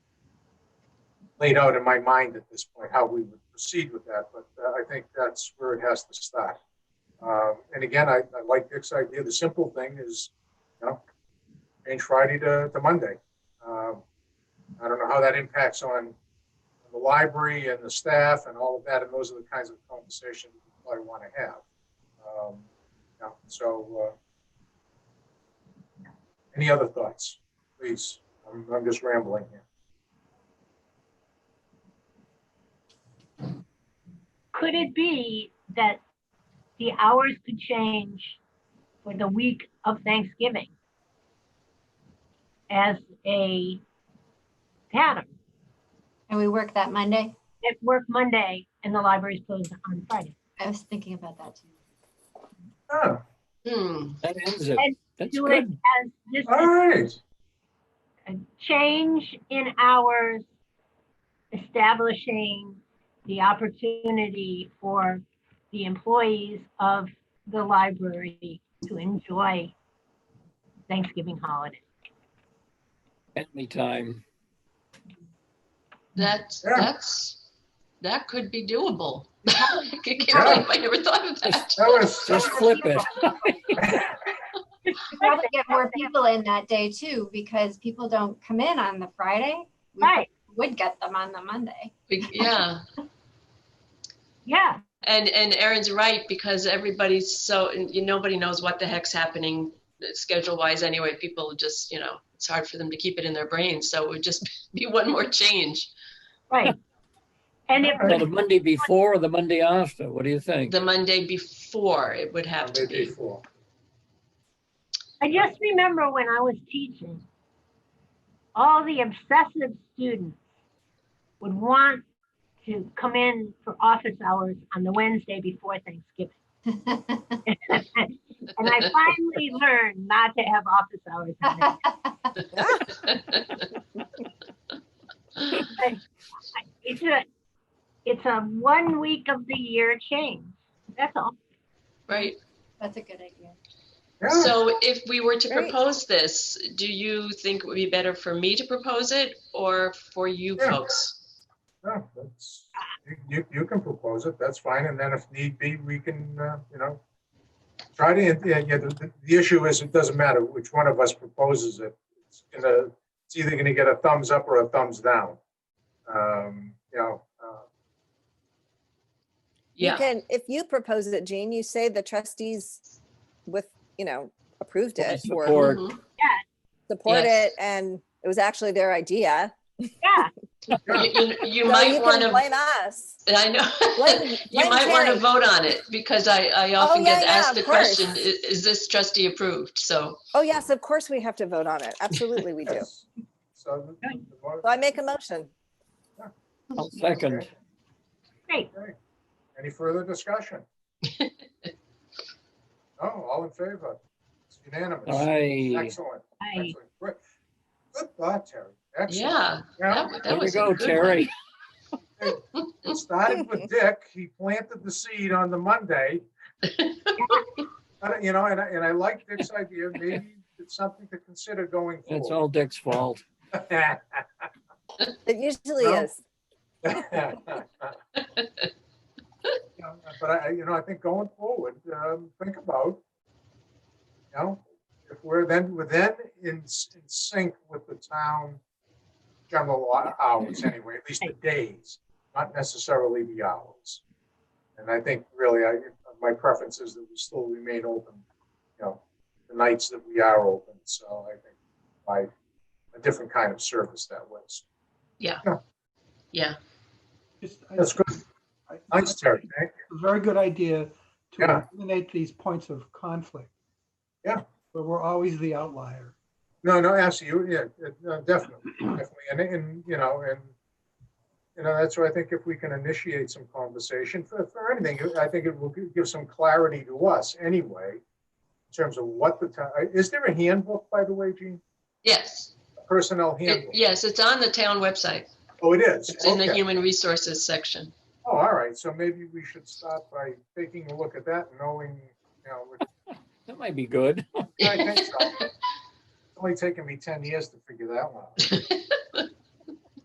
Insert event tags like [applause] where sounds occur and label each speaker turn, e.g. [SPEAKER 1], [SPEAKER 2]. [SPEAKER 1] laid out in my mind at this point how we would proceed with that, but uh, I think that's where it has to start. Um, and again, I, I like Dick's idea. The simple thing is, you know, change Friday to, to Monday. Um, I don't know how that impacts on the library and the staff and all of that, and those are the kinds of conversations I want to have. Um, yeah, so, uh, any other thoughts, please? I'm, I'm just rambling here.
[SPEAKER 2] Could it be that the hours could change for the week of Thanksgiving as a pattern?
[SPEAKER 3] And we work that Monday?
[SPEAKER 2] At work Monday and the library's closed on Friday.
[SPEAKER 3] I was thinking about that too.
[SPEAKER 1] Oh,
[SPEAKER 4] Hmm,
[SPEAKER 5] That ends it.
[SPEAKER 2] And
[SPEAKER 5] That's
[SPEAKER 2] Do it
[SPEAKER 5] good.
[SPEAKER 2] as this
[SPEAKER 1] all right.
[SPEAKER 2] a change in hours, establishing the opportunity for the employees of the library to enjoy Thanksgiving holiday.
[SPEAKER 5] Family time.
[SPEAKER 4] that's,
[SPEAKER 1] Yeah.
[SPEAKER 4] that's, that could be doable. [laughs] I can't believe I never thought of that.
[SPEAKER 1] That was,
[SPEAKER 5] Just flip it.
[SPEAKER 3] Probably get more people in that day too, because people don't come in on the Friday. We
[SPEAKER 2] Right,
[SPEAKER 3] Would get them on the Monday.
[SPEAKER 4] We- Yeah,
[SPEAKER 2] yeah,
[SPEAKER 4] and, and Erin's right, because everybody's so, and you- nobody knows what the heck's happening schedule wise anyway. People just, you know, it's hard for them to keep it in their brains, so it would just [laughs] be one more change.
[SPEAKER 2] right. And it
[SPEAKER 5] Well,
[SPEAKER 2] would
[SPEAKER 5] the Monday before or the Monday after? What do you think?
[SPEAKER 4] The Monday before it would have to
[SPEAKER 1] Maybe
[SPEAKER 4] be.
[SPEAKER 1] four.
[SPEAKER 2] I just remember when I was teaching, all the obsessive students would want to come in for office hours on the Wednesday before Thanksgiving. [laughs] And I finally learned not to have office hours. on that. It's a, it's a one week of the year change. That's all.
[SPEAKER 4] Right.
[SPEAKER 3] That's a good idea.
[SPEAKER 1] Yeah,
[SPEAKER 4] So if we were to
[SPEAKER 6] Great.
[SPEAKER 4] propose this, do you think it would be better for me to propose it or for you
[SPEAKER 1] Yeah.
[SPEAKER 4] folks?
[SPEAKER 1] yeah, that's, you- you, you can propose it, that's fine, and then if need be, we can, uh, you know, try to, yeah, yeah, the, the- the issue is, it doesn't matter which one of us proposes it. It's gonna, it's either gonna get a thumbs up or a thumbs down. Um, you know, uh,
[SPEAKER 6] You
[SPEAKER 4] Yeah,
[SPEAKER 6] can, if you propose it, Jean, you say the trustees with, you know, approved
[SPEAKER 5] Or
[SPEAKER 6] it or
[SPEAKER 5] Support.
[SPEAKER 4] Mhm.
[SPEAKER 6] support
[SPEAKER 4] Yes.
[SPEAKER 6] it and it was actually their idea.
[SPEAKER 2] Yeah,
[SPEAKER 4] You- you, you
[SPEAKER 6] So
[SPEAKER 4] might
[SPEAKER 6] can
[SPEAKER 4] want to,
[SPEAKER 6] Blame us.
[SPEAKER 4] [laughs] I know,
[SPEAKER 6] Blame-
[SPEAKER 4] [laughs] you
[SPEAKER 6] blame
[SPEAKER 4] might want to
[SPEAKER 6] Terry.
[SPEAKER 4] vote on it because I, I often
[SPEAKER 6] yeah,
[SPEAKER 4] get
[SPEAKER 6] yeah,
[SPEAKER 4] asked
[SPEAKER 6] of
[SPEAKER 4] the question, i-
[SPEAKER 6] course.
[SPEAKER 4] is this trustee approved? So,
[SPEAKER 6] Oh, yes, of course we have to vote on it. Absolutely we do.
[SPEAKER 1] [laughs] yes. So. the- the vote-
[SPEAKER 6] So I make a motion.
[SPEAKER 5] I'll second.
[SPEAKER 2] great.
[SPEAKER 1] Any further discussion? No, all in favor? It's unanimous.
[SPEAKER 5] Aye.
[SPEAKER 1] Excellent.
[SPEAKER 2] I,
[SPEAKER 1] excellent. Great. Good thought, Terry. Excellent.
[SPEAKER 4] yeah,
[SPEAKER 1] Now,
[SPEAKER 4] that that
[SPEAKER 5] There you
[SPEAKER 4] was a
[SPEAKER 5] go,
[SPEAKER 4] good one.
[SPEAKER 5] Terry.
[SPEAKER 1] It started with Dick. He planted the seed on the
[SPEAKER 4] [laughs]
[SPEAKER 1] Monday. I don't- You know, and I, and I like Dick's idea. Maybe it's something to consider going
[SPEAKER 5] It's
[SPEAKER 1] forward.
[SPEAKER 5] all Dick's fault.
[SPEAKER 1] [laughs]
[SPEAKER 6] It usually
[SPEAKER 1] No.
[SPEAKER 6] is.
[SPEAKER 1] Yeah, [laughs] But I, you know, I think going forward, um, think about, you know, if we're then, we're then in, s- in sync with the town general hou- hours anyway, at least the days, not necessarily the hours. And I think really, I, my preference is that we still remain open, you know, the nights that we are open, so I think by a different kind of service that was.
[SPEAKER 4] Yeah,
[SPEAKER 7] Just, I-
[SPEAKER 1] That's good.
[SPEAKER 7] I-
[SPEAKER 1] Thanks, Terry. Thank you.
[SPEAKER 7] It's a very good idea
[SPEAKER 1] Yeah.
[SPEAKER 7] to eliminate these points of conflict.
[SPEAKER 1] Yeah.
[SPEAKER 7] Where we're always the outlier.
[SPEAKER 1] No, no, absolutely, yeah, it- no, definitely, definitely, and, and, you know, and, you know, that's why I think if we can initiate some conversation for, for anything, I think it will gi- give some clarity to us anyway, in terms of what the, ti- is there a handbook, by the way, Gene?
[SPEAKER 4] yes.
[SPEAKER 1] A Personnel
[SPEAKER 4] It-
[SPEAKER 1] handbook?
[SPEAKER 4] Yes, it's on the town website.
[SPEAKER 1] Oh, it is?
[SPEAKER 4] It's in the
[SPEAKER 1] Okay.
[SPEAKER 4] human resources section.
[SPEAKER 1] Oh, all right, so maybe we should start by taking a look at that, knowing, you know, what-
[SPEAKER 5] That might be good.
[SPEAKER 4] [laughs]
[SPEAKER 1] I think so. It's only taken me ten years to figure that one out.